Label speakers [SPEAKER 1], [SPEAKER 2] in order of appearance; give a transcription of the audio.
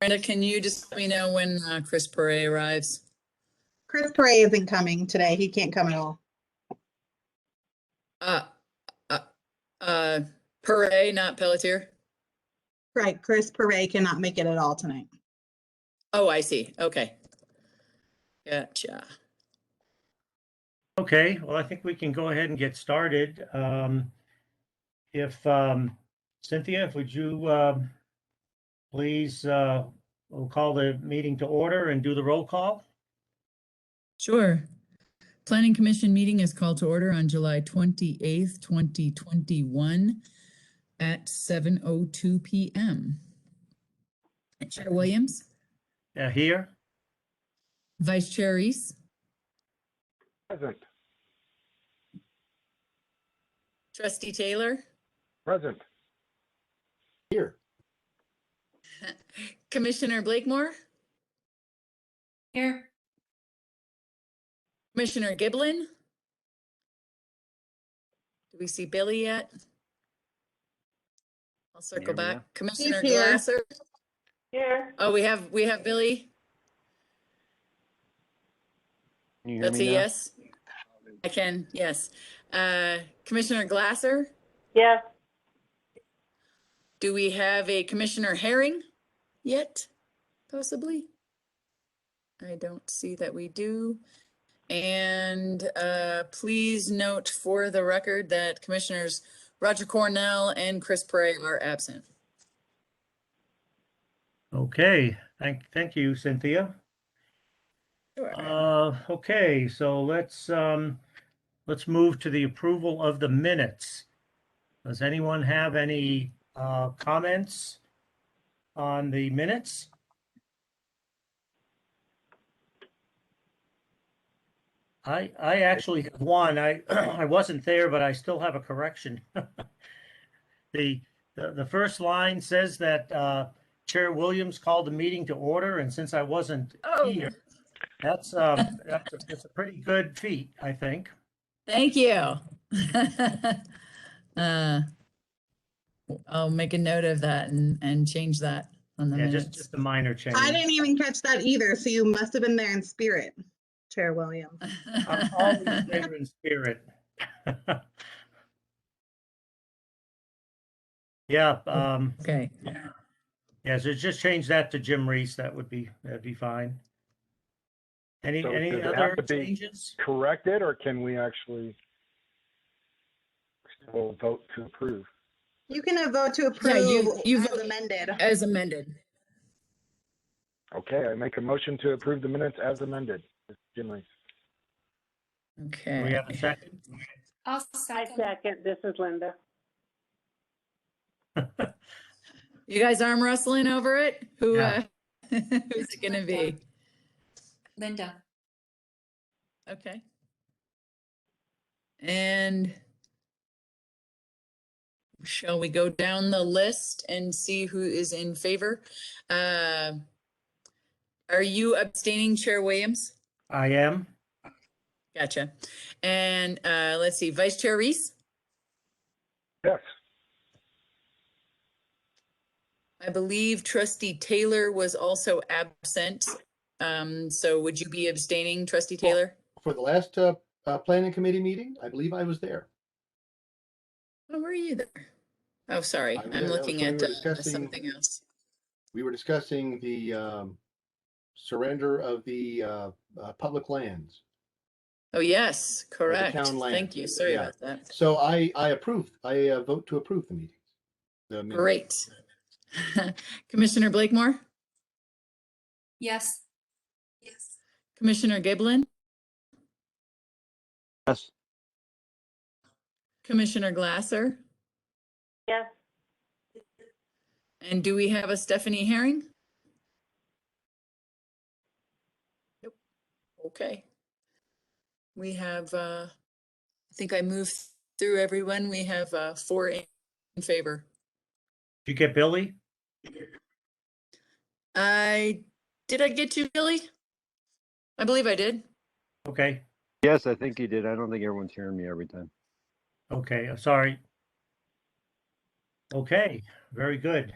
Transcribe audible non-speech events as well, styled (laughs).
[SPEAKER 1] Brenda, can you just let me know when uh, Chris Perret arrives?
[SPEAKER 2] Chris Perry isn't coming today. He can't come at all.
[SPEAKER 1] Uh, uh, uh, Perret, not Pelletier?
[SPEAKER 2] Right, Chris Perry cannot make it at all tonight.
[SPEAKER 1] Oh, I see. Okay. Gotcha.
[SPEAKER 3] Okay, well, I think we can go ahead and get started. Um, If um, Cynthia, if would you um, please, uh, we'll call the meeting to order and do the roll call?
[SPEAKER 1] Sure. Planning Commission meeting is called to order on July 28th, 2021 at 7:02 PM. Chair Williams,
[SPEAKER 3] Uh, Here?
[SPEAKER 1] Vice Chair Reese,
[SPEAKER 4] Present,
[SPEAKER 1] Trustee Taylor,
[SPEAKER 4] present. Here.
[SPEAKER 1] Commissioner Blakemore,
[SPEAKER 5] Here.
[SPEAKER 1] Commissioner Giblin. Do we see Billy yet? I'll circle
[SPEAKER 3] There we
[SPEAKER 1] back.
[SPEAKER 3] are.
[SPEAKER 1] Commissioner
[SPEAKER 2] here.
[SPEAKER 1] Glasser.
[SPEAKER 5] Here.
[SPEAKER 1] Oh, we have, we have Billy.
[SPEAKER 4] Can you hear
[SPEAKER 1] That's a
[SPEAKER 4] me now?
[SPEAKER 1] yes. I can, yes. Uh, Commissioner Glasser,
[SPEAKER 5] Yeah.
[SPEAKER 1] do we have a Commissioner Herring yet, possibly? I don't see that we do. And uh, please note for the record that Commissioners Roger Cornell and Chris Prey are absent.
[SPEAKER 3] Okay, thank, thank you, Cynthia. Uh, Okay, so let's, um, let's move to the approval of the minutes. Does anyone have any uh, comments on the minutes? I, I actually have one. I, (clears throat) I wasn't there, but I still have a correction. (laughs) The, the, the first line says that uh, Chair Williams called the meeting to order, and since I wasn't
[SPEAKER 1] Oh,
[SPEAKER 3] here, that's, um, that's, a- that's a pretty good feat, I think.
[SPEAKER 1] Thank you. (laughs) Uh, I'll make a note of that and, and change that on the
[SPEAKER 3] Yeah, just,
[SPEAKER 1] minutes.
[SPEAKER 3] just a minor change.
[SPEAKER 2] I
[SPEAKER 3] (laughs)
[SPEAKER 2] didn't even catch that either, so you must have been there in spirit, Chair Williams.
[SPEAKER 3] I'm always there in spirit. (laughs) Yeah, um,
[SPEAKER 1] (laughs) Okay,
[SPEAKER 3] yeah, so just change that to Jim Reese. That would be, that'd be fine. Any,
[SPEAKER 4] So
[SPEAKER 3] any
[SPEAKER 4] does it have
[SPEAKER 3] other
[SPEAKER 4] to be-
[SPEAKER 3] changes?
[SPEAKER 4] Corrected, or can we actually still vote to approve?
[SPEAKER 2] You can uh, vote to
[SPEAKER 1] Yeah, you-
[SPEAKER 2] approve
[SPEAKER 1] you
[SPEAKER 2] as
[SPEAKER 1] vote-
[SPEAKER 2] amended.
[SPEAKER 1] as amended.
[SPEAKER 4] Okay, I make a motion to approve the minutes as amended. Jim Reese.
[SPEAKER 3] Do we
[SPEAKER 1] Okay.
[SPEAKER 3] have a second?
[SPEAKER 5] I'll
[SPEAKER 6] I
[SPEAKER 5] second.
[SPEAKER 6] second, this is Linda.
[SPEAKER 1] You guys arm wrestling over it? Who, uh, (laughs)
[SPEAKER 3] Yeah.
[SPEAKER 1] who's it gonna be?
[SPEAKER 5] Linda.
[SPEAKER 1] Okay. And shall we go down the list and see who is in favor? Uh, Are you abstaining, Chair Williams?
[SPEAKER 3] I am.
[SPEAKER 1] Gotcha. And uh, let's see, Vice Chair Reese?
[SPEAKER 4] Yes,
[SPEAKER 1] I believe Trustee Taylor was also absent. Um, So would you be abstaining, Trustee
[SPEAKER 7] Well-
[SPEAKER 1] Taylor?
[SPEAKER 7] for the last uh, uh, planning committee meeting, I believe I was there.
[SPEAKER 1] Oh, were you there? Oh, sorry,
[SPEAKER 7] I was there.
[SPEAKER 1] I'm
[SPEAKER 7] That was
[SPEAKER 1] looking at
[SPEAKER 7] when we were
[SPEAKER 1] uh,
[SPEAKER 7] discussing-
[SPEAKER 1] something else.
[SPEAKER 7] We were discussing the um, surrender of the uh, uh, public lands.
[SPEAKER 1] Oh, yes, correct.
[SPEAKER 7] town land.
[SPEAKER 1] Thank you. Sorry
[SPEAKER 7] Yeah.
[SPEAKER 1] about that.
[SPEAKER 7] So I, I approve, I uh, vote to approve the meetings. the minutes.
[SPEAKER 1] Great. (laughs) Commissioner Blakemore,
[SPEAKER 5] Yes. Yes.
[SPEAKER 1] Commissioner Giblin?
[SPEAKER 4] Yes.
[SPEAKER 1] Commissioner Glasser?
[SPEAKER 6] Yes,
[SPEAKER 1] And do we have a Stephanie Herring? Nope. Okay. We have, uh, I think I moved through everyone. We have, uh, four in in favor.
[SPEAKER 3] Did you get Billy?
[SPEAKER 1] I, did I get you, Billy? I believe I did.
[SPEAKER 3] Okay,
[SPEAKER 8] Yes, I think you did. I don't think everyone's hearing me every time.
[SPEAKER 3] okay, I'm sorry. Okay, very good.